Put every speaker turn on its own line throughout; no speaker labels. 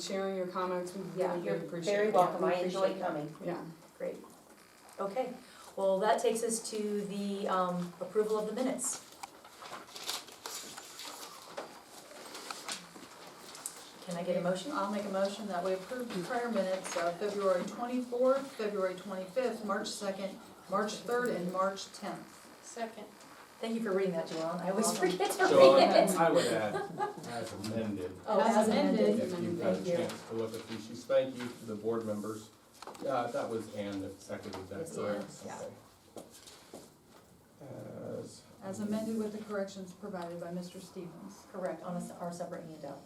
sharing your comments, we
Yeah,
really do
you're
appreciate it.
very welcome,
We
I
appreciate
enjoy
it.
coming.
Yeah,
Great. Okay, well, that takes us to the um, approval of the minutes. Can I get a motion?
I'll make a motion that we approve the prior minutes of February twenty-fourth, February twenty-fifth, March second, March third, and March tenth.
Second.
Thank you for reading that, Joellen, I always forget to
So
read it.
I I would add, as amended,
Oh,
As
as
amended.
amended.
if you've had a
Thank you.
chance to look at these, she's thank you to the board members. Yeah, that was Ann that seconded that,
Yes,
correct?
yes, yeah.
Okay. As.
As amended with the corrections provided by Mr. Stevens.
Correct, on a s- our separate handout.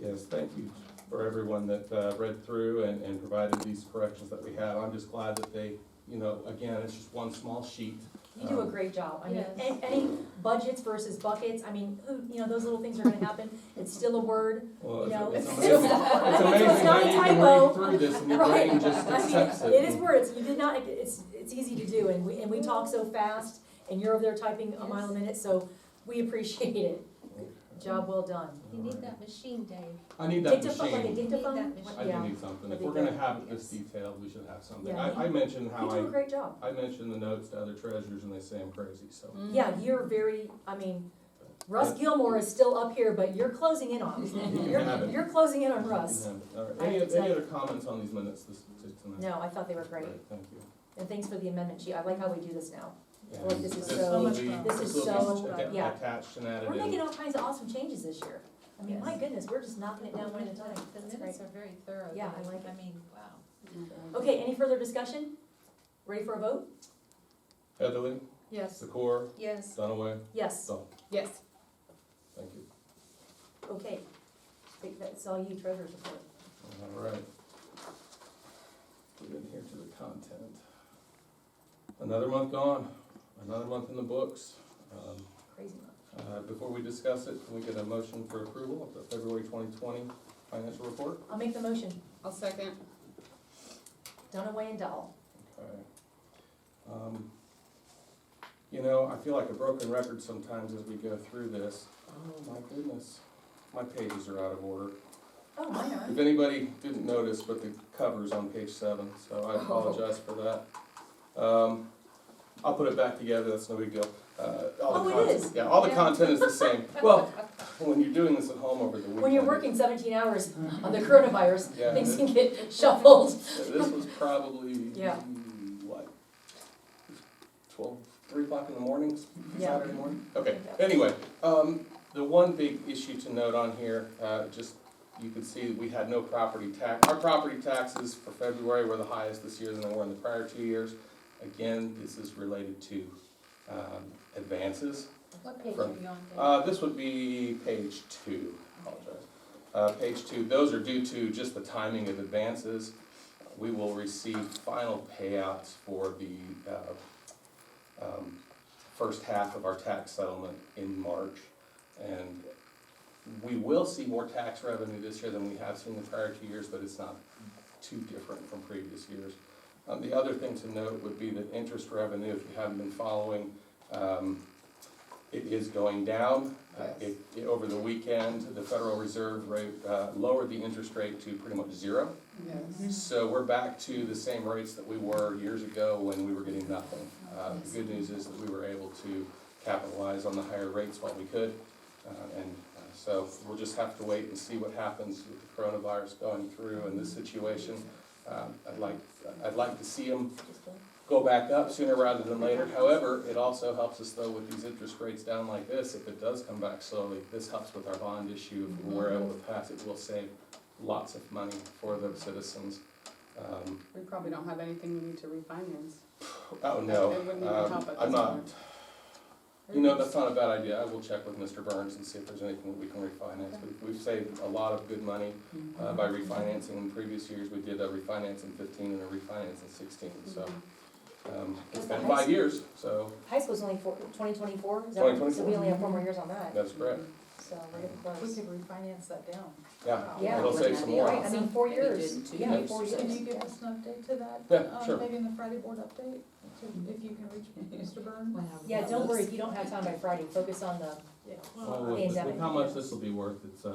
Yes, thank you for everyone that uh, read through and, and provided these corrections that we have. I'm just glad that they, you know, again, it's just one small sheet.
You do a
Um,
great job, I mean,
Yes.
any, any budgets versus buckets, I mean, who, you know, those little things are gonna happen, it's still a word,
Well,
you know.
it's- it's
still-
amazing. It's
So
amazing
it's not
that
a
you can
typo.
read through this and your
Right.
brain just
I mean,
accepts it.
It is words, you did not, it's, it's easy to do, and we, and we talk so fast, and you're over there typing a mile a minute, so we appreciate it. Job well done.
You need that machine, Dave.
I need that
Dictaphone, like a
machine.
dictaphone?
Need that
I
machine.
do
Yeah,
need something. If
I
we're
think
gonna have it this
yes.
detailed, we should have something.
Yeah.
I, I mentioned
you
how
do a
I,
great job.
I mentioned the notes to other treasurers and they say I'm crazy, so.
Mm-hmm.
Yeah, you're very, I mean, Russ Gilmore is still up here, but you're closing in on
You
him.
can have
You're,
it.
you're closing in on
You
Russ.
can have it. All right.
I
Any,
have to
any
tell-
other comments on these minutes this, to tonight?
No, I thought they were great,
Great, Thank you.
and thanks for the amendment, gee, I like how we do this now.
Yeah,
Look, this is so-
will
much
be-
fun.
This is
will be
so,
atta-
yeah.
Attached and added
We're
in.
making all kinds of awesome changes this year. I mean, my
Yes.
goodness, we're just knocking it down one at a time.
The
That's
minutes
great.
are very thorough.
Yeah,
though.
I like it.
I mean, wow.
Okay, any further discussion? Ready for a vote?
Heatherly,
Yes.
Secor,
Yes.
Dunaway,
Yes,
Dahl,
Yes.
thank you.
okay. Think That's all you treasurer's report.
All right. Get in here to the content. Another month gone, another month in the books. Um,
Crazy month.
Uh, Before we discuss it, can we get a motion for approval of the February 2020 financial report?
I'll make the motion.
I'll second.
Dunaway and Dahl.
Okay. Um, You know, I feel like a broken record sometimes as we go through this. Oh, my goodness, my pages are out of order.
Oh, mine are.
If anybody didn't notice, but the cover's on page seven, so
Oh.
I apologize for that. Um, I'll put it back together, that's no big deal. Uh, all the
Oh, it
content-
is.
Yeah, all the
Yeah.
content is the same. Well, when you're doing this at home over the weekend.
When you're working seventeen hours on the coronavirus,
yeah,
things
it-
can get shuffled.
So This was probably, mm,
Yeah.
what, twelve, three o'clock in the morning,
Yeah.
Saturday morning? Okay, anyway, um, the one big issue to note on here, uh, just, you can see that we had no property tax. Our property taxes for February were the highest this year than they were in the prior two years. Again, this is related to, um, advances.
What page are
From-
you on, Dave?
Uh, this would be page two, apologize. Uh, page two, those are due to just the timing of advances. We will receive final payouts for the, uh, um, first half of our tax settlement in March. And we will see more tax revenue this year than we have seen the prior two years, but it's not too different from previous years. Um, the other thing to note would be that interest revenue, if you haven't been following, um, it is going down. Uh, It, it- over the weekend, the Federal Reserve rate, uh, lowered the interest rate to pretty much zero.
Yes.
So we're back to the same rates that we were years ago when we were getting nothing. Uh, the good news is that we were able to capitalize on the higher rates while we could. Uh, and uh, so we'll just have to wait and see what happens with the coronavirus going through and this situation. Um, I'd like, I'd like to see them go back up sooner rather than later. However, it also helps us though with these interest rates down like this, if it does come back slowly, this helps with our bond issue. If we're able to pass it, we'll save lots of money for the citizens. Um,
We probably don't have anything we need to refinance.
Oh, no,
It wouldn't even
um,
help at
I'm
this
not,
point.
you know, that's not a bad idea. I will check with Mr. Burns and see if there's anything that we can refinance. We- We've saved a lot of good money
Mm-hmm.
uh, by refinancing. In previous years, we did a refinance in fifteen and a refinance in sixteen, so.
That's
um, It's
the
been
highest-
five years, so
High school's only four, twenty twenty-four, is that right? So we
2024.
only have four more years on that,
that's correct.
so we're getting
We
close.
could refinance that down.
Yeah,
Yeah.
it'll save some more.
Right, I mean, four years, yeah,
years.
four years.
Can you give us an update to that?
Yeah,
um,
sure.
Maybe in the Friday board update, to- if you can reach Mr. Byrne?
Yeah, don't worry, if you don't have time by Friday, focus on the,
Yeah.
Well, with- with
Pandemic.
How much this will be worth, it's, uh,